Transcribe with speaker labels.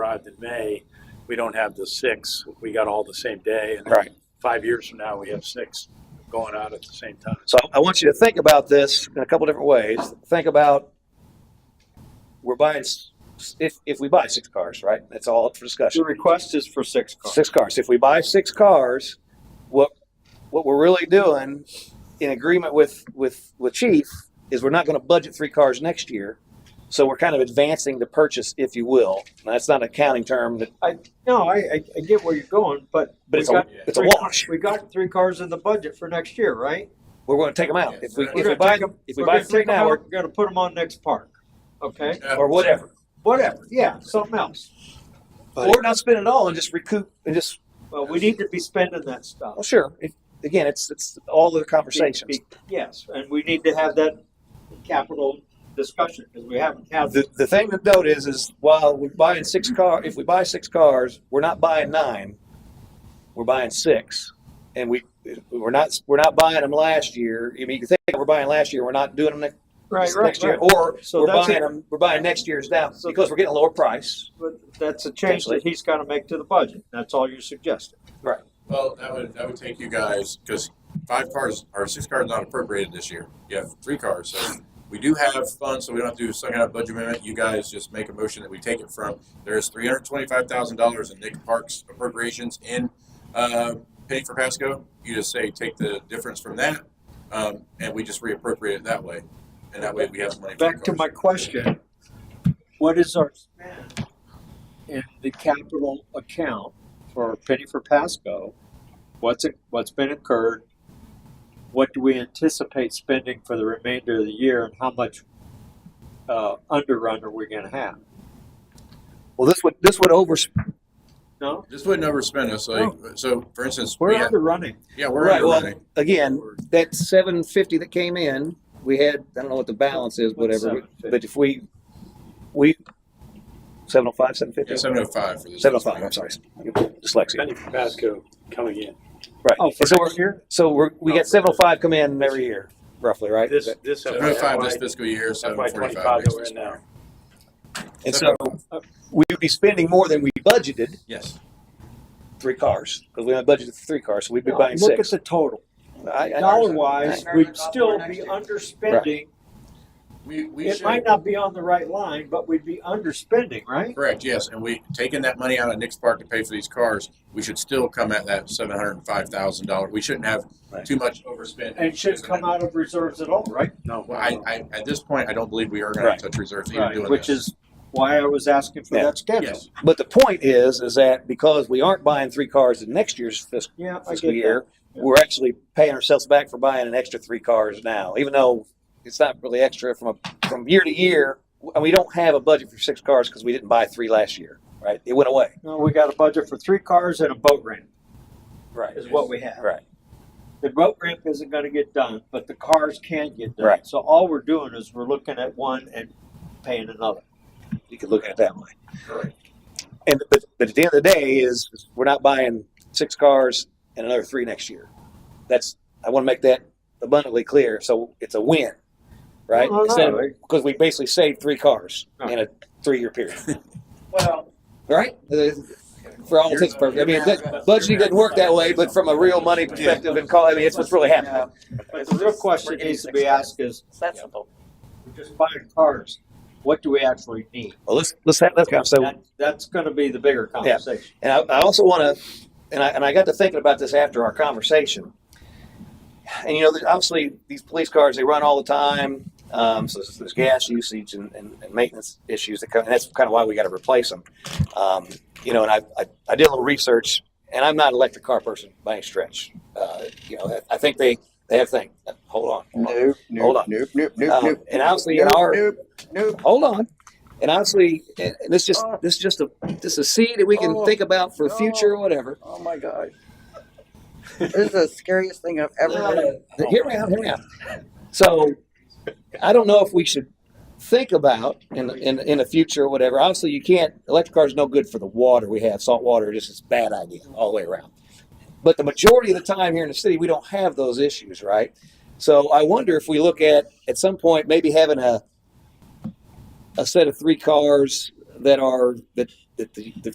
Speaker 1: arrived in May, we don't have the six. We got all the same day. And
Speaker 2: Right.
Speaker 1: five years from now, we have six going out at the same time.
Speaker 2: So I want you to think about this in a couple different ways. Think about we're buying s- if if we buy six cars, right? That's all up for discussion.
Speaker 3: The request is for six cars.
Speaker 2: Six cars. If we buy six cars, what what we're really doing in agreement with with with Chief is we're not going to budget three cars next year. So we're kind of advancing the purchase, if you will. Now, that's not an accounting term, that,
Speaker 3: No, I, I, I get where you're going, but.
Speaker 2: but
Speaker 3: we
Speaker 2: it's a
Speaker 3: got
Speaker 2: it's a
Speaker 3: three-
Speaker 2: wash.
Speaker 3: We got three cars in the budget for next year, right?
Speaker 2: We're going to take them out if we
Speaker 4: We're
Speaker 2: if we
Speaker 3: gonna
Speaker 2: buy
Speaker 3: take 'em-
Speaker 2: if we
Speaker 3: we're
Speaker 2: buy
Speaker 3: gonna
Speaker 2: three
Speaker 3: take 'em
Speaker 2: now
Speaker 3: out,
Speaker 2: or,
Speaker 3: We're gonna put them on next park, okay?
Speaker 2: or whatever.
Speaker 3: Whatever, yeah, something else.
Speaker 2: Or we're not spending it all and just recoup and just
Speaker 3: Well, we need to be spending that stuff.
Speaker 2: Well, Oh, sure. It, again, it's it's all the conversations.
Speaker 3: Be- be- Yes, and we need to have that capital discussion, because we haven't had.
Speaker 2: The, the thing to note is, is while we're buying six car, if we buy six cars, we're not buying nine. We're buying six, and we we're not we're not buying them last year. I mean, you can think we're buying last year. We're not doing them next,
Speaker 3: Right,
Speaker 2: next year, or
Speaker 3: So
Speaker 2: we're
Speaker 3: that's
Speaker 2: buying
Speaker 3: it.
Speaker 2: them. We're buying next year's down
Speaker 3: So-
Speaker 2: because we're getting a lower price.
Speaker 3: But that's a change that he's gotta make to the budget, that's all you're suggesting.
Speaker 4: Well, that would, that would take you guys, because five cars, or six cars not appropriated this year. You have three cars, so we do have funds, so we don't have to do a second half budget amendment. You guys just make a motion that we take it from, there's three hundred twenty-five thousand dollars in Nick Parks appropriations in, uh, paying for Pasco. You just say, take the difference from that, um, and we just reappropriate it that way. And that way we have money. for
Speaker 3: Back to
Speaker 4: cars.
Speaker 3: my question, what is our spend in the capital account for Penny for Pasco? What's, it- what's been incurred? What do we anticipate spending for the remainder of the year and how much, uh, underrun are we gonna have?
Speaker 2: Well, this would this would over
Speaker 3: No,
Speaker 4: This would never spend us, like, so for instance,
Speaker 3: we're
Speaker 4: we have-
Speaker 3: underrunning.
Speaker 4: yeah, we're
Speaker 2: Right, well,
Speaker 4: underwriting.
Speaker 2: again. That seven fifty that came in, we had I don't know what the balance is, whatever. But if we we seven oh five, seven fifty.
Speaker 4: Yeah, seven oh five for this.
Speaker 2: Seven oh five. I'm sorry, dyslexia.
Speaker 1: Benny Pasco coming in.
Speaker 2: Right.
Speaker 3: Oh, for
Speaker 2: so we're
Speaker 3: next year?
Speaker 2: so we're, we
Speaker 1: Oh,
Speaker 2: got
Speaker 1: for
Speaker 2: seven oh five come in every year, roughly, right?
Speaker 1: This, this.
Speaker 4: Seven oh five this
Speaker 1: FY
Speaker 4: fiscal year, seven forty-five
Speaker 1: 25 that
Speaker 4: next
Speaker 1: we're in
Speaker 4: fiscal
Speaker 1: now.
Speaker 4: year.
Speaker 2: and so we would be spending more than we budgeted
Speaker 4: Yes.
Speaker 2: three cars because we only budgeted for three cars, so we'd be
Speaker 3: No,
Speaker 2: buying
Speaker 3: Look at
Speaker 2: six.
Speaker 3: the total.
Speaker 2: I- I-
Speaker 3: Dollar wise,
Speaker 5: Right.
Speaker 3: we'd still be underspending.
Speaker 4: We, we
Speaker 3: It might
Speaker 4: should,
Speaker 3: not be on the right line, but we'd be underspending, right?
Speaker 4: correct, yes, and we, taking that money out of Nick's Park to pay for these cars, we should still come at that seven hundred and five thousand dollar, we shouldn't have
Speaker 2: Right.
Speaker 4: too much overspend.
Speaker 3: And shouldn't come out of reserves at all, right?
Speaker 1: No.
Speaker 4: Well, I, I, at this point, I don't believe we are gonna
Speaker 2: Right.
Speaker 4: touch reserves even doing
Speaker 3: Which
Speaker 4: this.
Speaker 3: is why I was asking for
Speaker 2: Yeah.
Speaker 3: that schedule.
Speaker 4: Yes,
Speaker 2: But the point is, is that because we aren't buying three cars in next year's fiscal.
Speaker 3: Yeah, I
Speaker 2: fiscal
Speaker 3: get that.
Speaker 2: year. We're actually paying ourselves back for buying an extra three cars now, even though it's not really extra from a, from year to year. And we don't have a budget for six cars because we didn't buy three last year, right? It went away.
Speaker 3: No, we got a budget for three cars and a boat ramp
Speaker 2: Right.
Speaker 3: is what we have.
Speaker 2: Right.
Speaker 3: The boat ramp isn't gonna get done, but the cars can get done.
Speaker 2: Right.
Speaker 3: So all we're doing is we're looking at one and paying another.
Speaker 2: You could look at it that way.
Speaker 4: correct.
Speaker 2: And but, but at the end of the day is we're not buying six cars and another three next year. That's I want to make that abundantly clear. So it's a win, right?
Speaker 3: No, no,
Speaker 2: Instead of-
Speaker 3: no.
Speaker 2: because we basically saved three cars
Speaker 3: Right.
Speaker 2: in a three-year period.
Speaker 5: Well,
Speaker 2: right? For all intents and purposes. I mean, that- budgeting doesn't work that way, but from a real money perspective and call, I mean, it's what's really happening.
Speaker 3: But the real question needs to be asked is,
Speaker 5: it's that simple.
Speaker 3: we're just buying cars, what do we actually need?
Speaker 2: Well, let's, let's have that conversation.
Speaker 3: That- That's gonna be the bigger conversation.
Speaker 2: And I, I also want to, and I, and I got to thinking about this after our conversation. And you know, there's obviously these police cars, they run all the time. Um, so there's, there's gas usage and, and, and maintenance issues that come, and that's kind of why we got to replace them. Um, you know, and I, I, I did a little research and I'm not an electric car person by any stretch. Uh, you know, I, I think they, they have things. Hold on. Hold on.
Speaker 6: Nope, nope,
Speaker 2: Hold on.
Speaker 6: Nope, nope, nope,
Speaker 2: Um,
Speaker 6: nope.
Speaker 2: and obviously in
Speaker 6: Nope,
Speaker 2: our-
Speaker 6: nope, nope.
Speaker 2: hold on. And honestly, and and this just this just a this a seed that we can
Speaker 6: Oh,
Speaker 2: think about for
Speaker 6: no.
Speaker 2: future or whatever.
Speaker 6: Oh my gosh. this is the scariest thing I've ever heard. of.
Speaker 2: Hear me out. Hear me out. So, I don't know if we should think about in in in the future or whatever. Obviously, you can't. Electric cars no good for the water we have. Salt water just is a bad idea all the way around. But the majority of the time here in the city, we don't have those issues, right? So I wonder if we look at at some point maybe having a a set of three cars that are that that the, the